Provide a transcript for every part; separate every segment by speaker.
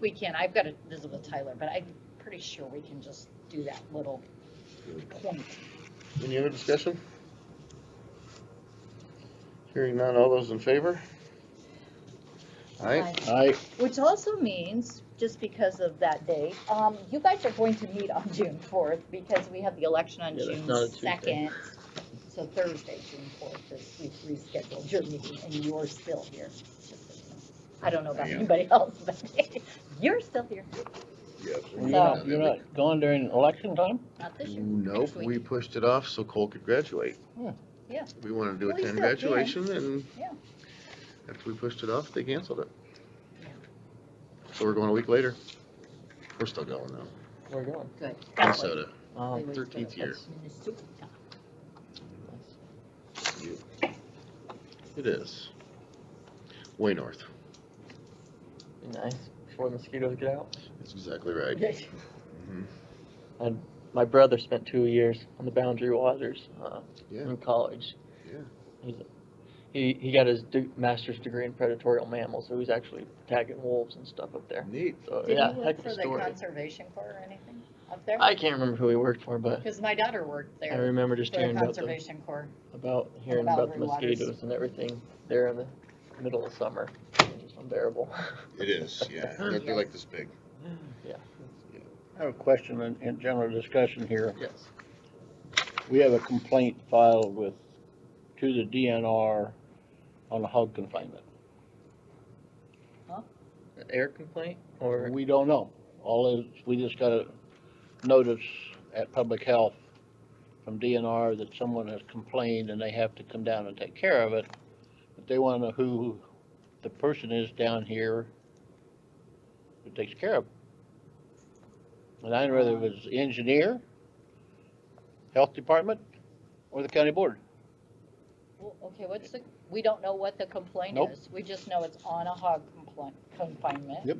Speaker 1: We can, I've got to visit with Tyler, but I'm pretty sure we can just do that little point.
Speaker 2: Any other discussion? Hearing none, all those in favor? Aye.
Speaker 3: Aye.
Speaker 1: Which also means, just because of that date, um, you guys are going to meet on June fourth because we have the election on
Speaker 3: Yeah, that's not a
Speaker 1: June
Speaker 3: Tuesday.
Speaker 1: second. So Thursday, June fourth, is we've rescheduled your meeting and you're still here. I don't know about
Speaker 2: I am.
Speaker 1: anybody else, but you're still here,
Speaker 2: Yes.
Speaker 3: You're not, you're not going during election time?
Speaker 1: not this year.
Speaker 2: Nope,
Speaker 1: next week.
Speaker 2: we pushed it off so Cole could graduate.
Speaker 3: Hmm.
Speaker 1: Yeah.
Speaker 2: We wanted to do a
Speaker 1: Well, you
Speaker 2: ten
Speaker 1: still can.
Speaker 2: graduation and
Speaker 1: Yeah.
Speaker 2: after we pushed it off, they canceled it.
Speaker 1: Yeah.
Speaker 2: So we're going a week later. We're still going though.
Speaker 3: We're going.
Speaker 1: Good.
Speaker 2: Minnesota,
Speaker 3: Um,
Speaker 2: thirteenth year.
Speaker 1: Minnesota.
Speaker 2: It is. Way north.
Speaker 3: be nice before the mosquitoes get out.
Speaker 2: That's exactly right.
Speaker 3: My brother spent two years on the Boundary Waters uh,
Speaker 2: Yeah,
Speaker 3: in college.
Speaker 2: Yeah.
Speaker 3: He's, he he got his de- master's degree in predatorial mammals, so he's actually tagging wolves and stuff up there.
Speaker 2: neat.
Speaker 3: So
Speaker 1: Did
Speaker 3: yeah,
Speaker 1: you work
Speaker 3: heck of
Speaker 1: for
Speaker 3: a
Speaker 1: the
Speaker 3: story.
Speaker 1: Conservation Corps or anything up there?
Speaker 3: I can't remember who he worked for, but
Speaker 1: Because my daughter worked
Speaker 3: I
Speaker 1: there
Speaker 3: remember
Speaker 1: for
Speaker 3: just
Speaker 1: the
Speaker 3: hearing about the,
Speaker 1: Conservation Corps.
Speaker 3: about hearing
Speaker 1: about
Speaker 3: about
Speaker 1: Boundary
Speaker 3: the
Speaker 1: Waters.
Speaker 3: mosquitoes and everything there in the middle of summer. It's just unbearable.
Speaker 2: It is, yeah. They're they're like this big.
Speaker 4: I have a question in, in general discussion here.
Speaker 3: yes.
Speaker 4: We have a complaint filed with, to the DNR on the hog confinement.
Speaker 3: An air complaint or
Speaker 4: We don't know. All is, we just got a notice at Public Health from DNR that someone has complained and they have to come down and take care of it. But they wanna know who the person is down here who takes care of. it. And I don't know whether it was the engineer, health department, or the county board.
Speaker 1: Well, Okay, what's the, we don't know what the complaint
Speaker 4: Nope.
Speaker 1: is. We just know it's on a hog compli- confinement.
Speaker 4: Yep.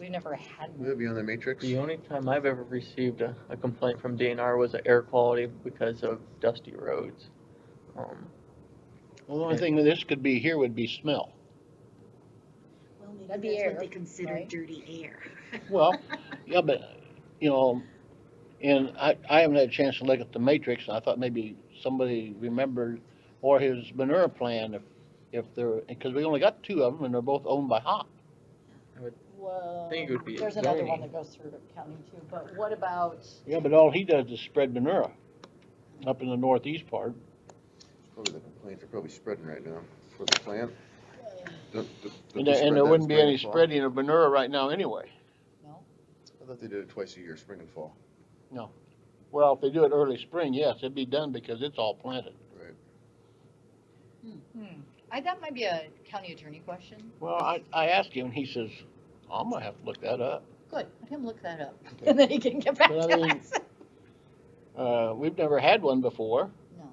Speaker 1: We've never had
Speaker 2: Will
Speaker 1: one.
Speaker 2: it be on the matrix?
Speaker 3: The only time I've ever received a, a complaint from DNR was the air quality because of dusty roads. Um,
Speaker 4: Well, the only thing that this could be here would be smell.
Speaker 5: Well,
Speaker 1: That'd be
Speaker 5: maybe that's
Speaker 1: air,
Speaker 5: what they consider
Speaker 1: right?
Speaker 5: dirty air.
Speaker 4: Well, yeah, but, you know, and I, I haven't had a chance to look at the matrix, and I thought maybe somebody remembered, or his manure plan, if, if there, because we only got two of them, and they're both owned by Hop.
Speaker 1: Well,
Speaker 3: think it would be
Speaker 1: there's another one
Speaker 3: zoning.
Speaker 1: that goes through the county too, but what about,
Speaker 4: Yeah, but all he does is spread manure up in the northeast part.
Speaker 2: Probably the complaints are probably spreading right now for the plant. Don't- don't- don't they
Speaker 4: And there,
Speaker 2: spread
Speaker 4: and there
Speaker 2: that
Speaker 4: wouldn't be
Speaker 2: spring
Speaker 4: any
Speaker 2: and fall?
Speaker 4: spreading of manure right now anyway.
Speaker 1: no?
Speaker 2: I thought they did it twice a year, spring and fall.
Speaker 4: Well, if they do it early spring, yes, it'd be done because it's all planted.
Speaker 2: Right.
Speaker 1: Hmm, I, that might be a county attorney question.
Speaker 4: Well, I, I asked him, and he says, I'm gonna have to look that up.
Speaker 1: Good, let him look that up and then he can get back
Speaker 4: But
Speaker 1: to
Speaker 4: I mean-
Speaker 1: us.
Speaker 4: Uh, we've never had one before.
Speaker 1: No.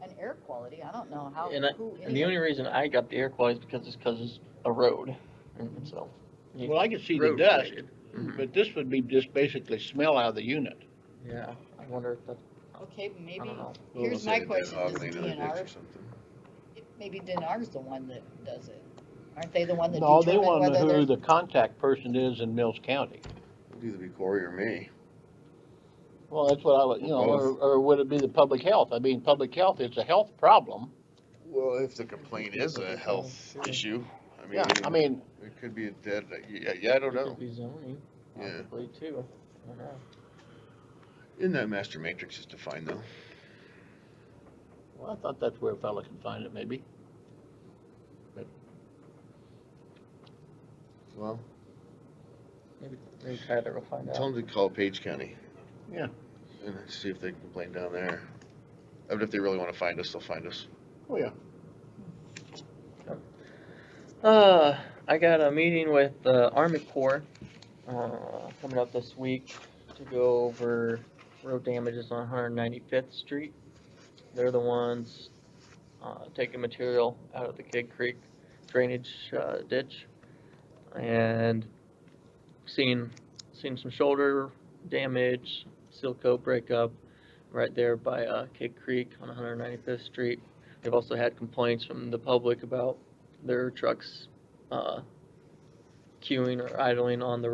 Speaker 1: And air quality, I don't know how,
Speaker 3: And I-
Speaker 1: who.
Speaker 3: and the only reason I got the air quality is because it's because it's a road, and so. you-
Speaker 4: Well, I could see the
Speaker 3: road
Speaker 4: dust,
Speaker 3: related. Mhm.
Speaker 4: Hmm. but this would be just basically smell out of the unit.
Speaker 3: Yeah, I wonder if that,
Speaker 1: Okay,
Speaker 3: I
Speaker 1: maybe,
Speaker 3: don't know.
Speaker 2: Well,
Speaker 1: Here's
Speaker 2: they
Speaker 1: my
Speaker 2: did that
Speaker 1: question,
Speaker 2: hog
Speaker 1: does
Speaker 2: lean in the ditch
Speaker 1: DNR
Speaker 2: or something.
Speaker 1: maybe DNR's the one that does it. Aren't they the one that
Speaker 4: No, they
Speaker 1: determine
Speaker 4: wanna
Speaker 1: whether
Speaker 4: know
Speaker 1: there's?
Speaker 4: who the contact person is in Mills County.
Speaker 2: It'd either be Corey or me.
Speaker 4: Well, that's what I would, you know, or,
Speaker 2: Both.
Speaker 4: or would it be the public health? I mean, public health, it's a health problem.
Speaker 2: Well, if the complaint is a health issue, I mean.
Speaker 4: Yeah, I mean,
Speaker 2: It could be a dead, yeah, yeah, I don't
Speaker 3: It
Speaker 2: know.
Speaker 3: could be zoning,
Speaker 2: Yeah.
Speaker 3: possibly too. I don't know.
Speaker 2: In that master matrix is defined though.
Speaker 4: well, I thought that's where a fella can find it maybe.
Speaker 2: Well,
Speaker 3: Maybe, maybe Tyler will find
Speaker 2: tell
Speaker 3: out.
Speaker 2: them to call Page County.
Speaker 4: Yeah.
Speaker 2: And see if they can complain down there. I mean, if they really wanna find us, they'll find us.
Speaker 4: Oh, yeah.
Speaker 3: Uh, I got a meeting with the Army Corps, uh, coming up this week to go over road damages on 195th Street. They're the ones, uh, taking material out of the Kid Creek drainage, uh, ditch. And seen, seen some shoulder damage, seal coat breakup right there by, uh, Kid Creek on 195th Street. They've also had complaints from the public about their trucks, uh, queuing or idling on the